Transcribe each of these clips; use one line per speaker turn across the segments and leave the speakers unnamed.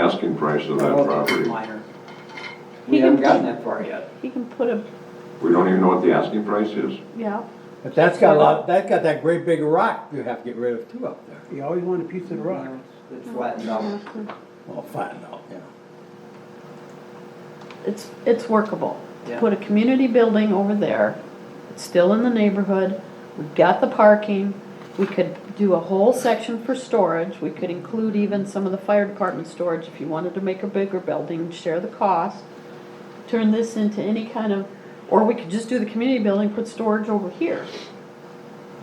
asking price of that property?
Minor.
He
We
can
haven't
put-
gotten that far yet.
He can put a,
We don't even know what the asking price is.
yeah,
But that's got a lot, that's got that great big rock you have to get rid of too up there.
You always want a piece of the rock.
It flattened out.
Well, find out, yeah.
it's, it's workable. To
Yeah.
Put a community building over there, it's still in the neighborhood, we've got the parking, we could do a whole section for storage, we could include even some of the fire department storage if you wanted to make a bigger building, share the cost. Turn this into any kind of, or we could just do the community building, put storage over here.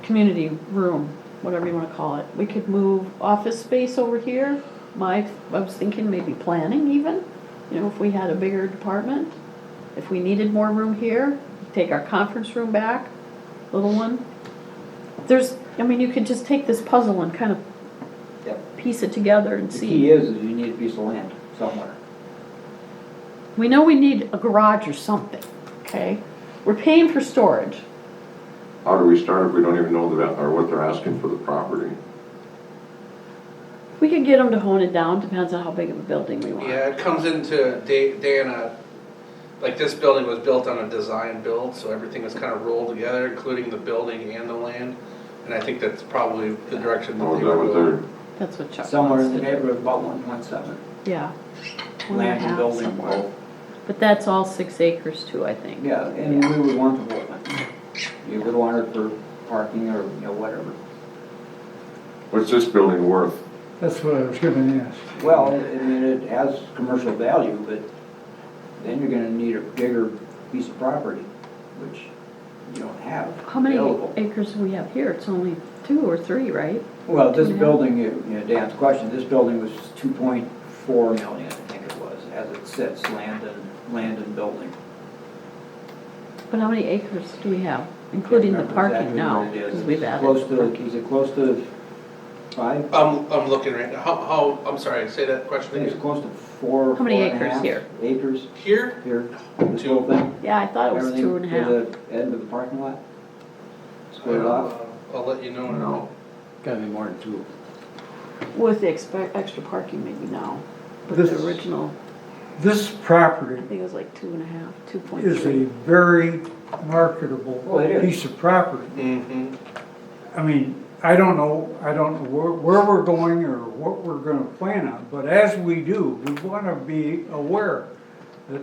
community room, whatever you wanna call it. We could move office space over here. My, I was thinking maybe planning even, you know, if we had a bigger department. If we needed more room here, take our conference room back, little one. There's, I mean, you could just take this puzzle and kind of
Yep.
piece it together and
The
see.
key is, is you need a piece of land somewhere.
We know we need a garage or something, okay? We're paying for storage.
How do we start if we don't even know the, va- or what they're asking for the property?
We could get them to hone it down, depends on how big of a building we want.
Yeah, it comes into Da- Dana, like this building was built on a design build, so everything was kind of rolled together, including the building and the land. And I think that's probably the direction that
Or
they
is that
were
what
going.
they're,
That's what Chuck wants
Somewhere in
to
the
do.
neighborhood of about one point seven.
Yeah. One and a
Land and
half
building
somewhere.
both.
But that's all six acres too, I think.
Yeah, and we would want the woodland. You would want it for parking or, you know, whatever.
what's this building worth?
That's what I was gonna ask.
Well, I mean, it has commercial value, but then you're gonna need a bigger piece of property, which you don't have
How many
available.
acres do we have here? It's only two or three, right?
Well, this
Two and a half?
building, you you know, Dan's question, this building was two point four million, I think it was, as it sits, land and, land and building.
But how many acres do we have, including the
Remember
parking
exactly
now?
what it is.
Because we've
It's
added
Close
parking.
to, is it close to five?
I'm, I'm looking right now, how, how, I'm sorry, say that
I
question
think it's
again.
close to four,
How
four
many
and a
acres
half
here?
Acres
Here,
here, this
Two.
whole thing,
Yeah, I thought it was
everything
two
to
and a half.
the end of the parking lot? Split it off?
I'll uh, I'll let you know in a minute.
No,
Gotta be more than two.
With the expe- extra parking maybe now. But
This-
the original,
This
I
property
think it was like two and a half, two point
is a
three.
very marketable
Oh, it is.
piece of property.
Mm-hmm,
I mean, I don't know, I don't know where, where we're going or what we're gonna plan on, but as we do, we wanna be aware that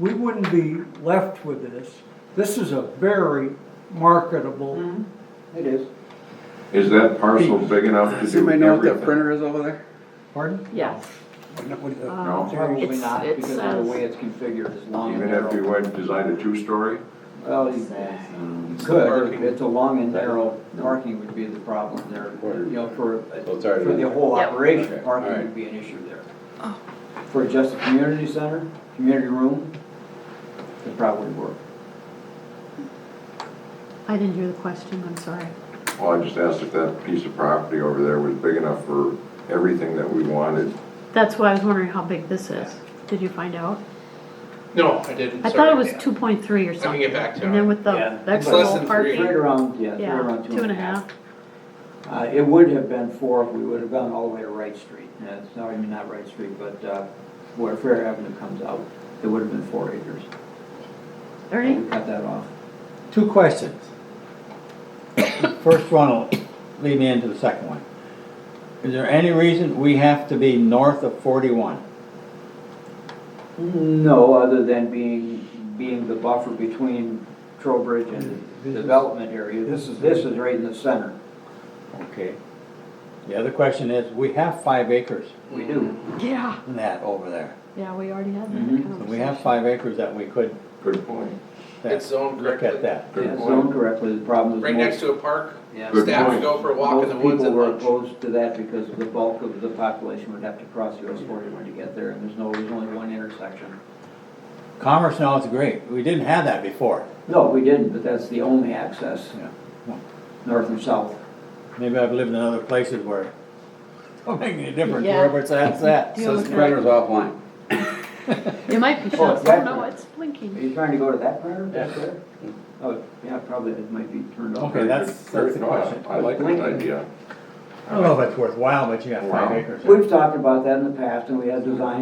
we wouldn't be left with this. This is a very marketable,
Mm-hmm.
It is.
is that parcel big enough to do
Somebody
everything?
know what that printer is over there?
pardon?
Yes.
No.
Um,
Probably
It's- uh,
not,
it
because of the
says-
way it's configured, it's long and
Even if you
narrow.
went, designed a two-story?
Well, you you could,
Parking.
it's a long and narrow, parking would be the problem there, you know, for,
So it's
for
already in
the
there.
whole
Yep. Oh.
operation,
Okay,
parking
alright.
would be an issue there. For just a community center, community room, it probably would work.
I didn't hear the question, I'm sorry.
Well, I just asked if that piece of property over there was big enough for everything that we wanted.
That's why I was wondering how big this is. Did you find out?
no, I didn't,
I thought it
sorry.
was two point three or something.
get back to you
And
on
then
it.
with the
Yeah.
the
It's
extra
less
whole
than three.
parking.
Right around, yeah, right
Yeah,
around
two and a half.
Uh, it would have been four if we would have gone all the way to Wright Street, Uh, it's not, I mean, not Wright Street, but, uh, where Fair Avenue comes out, it would have been four acres.
Ernie?
We cut that off.
Two questions. First one will lead me into the second one. Is there any reason we have to be north of forty-one?
No, other than being, being the buffer between Trowbridge and the development area. This is, this is right in the center.
Okay. The other question is, we have five acres
We do.
Yeah.
in that over there.
Yeah, we already had
Mhm.
that
So
conversation.
we have five acres that we could,
Good point,
that-
It's zoned
look
correctly.
at that.
good
Yeah,
point.
zoned correctly, the problem is.
Right next to a park,
Good
staff
point.
would go for a walk in the woods
Most
at
people were
lunch.
opposed to that because the bulk of the population would have to cross US forty-one to get there, and there's no, there's only one intersection.
Commerce now is great. We didn't have that before.
No, we didn't, but that's the only access,
Yeah.
north and south.
Maybe I've lived in other places where it don't make any difference
Yeah.
wherever it's at, it's at.
Do you
Says
have a-
printer's offline.
It might be
Oh,
shut,
exactly.
oh no, it's
Are
blinking.
you trying to go to that part or
Yeah.
that there? Oh, yeah, probably, it might be turned off.
Okay, that's, that's the
No, I-
question.
I like that idea.
I don't know if it's worthwhile, but you got five
Wow.
acres. there.
We've talked about that in the past, and we had design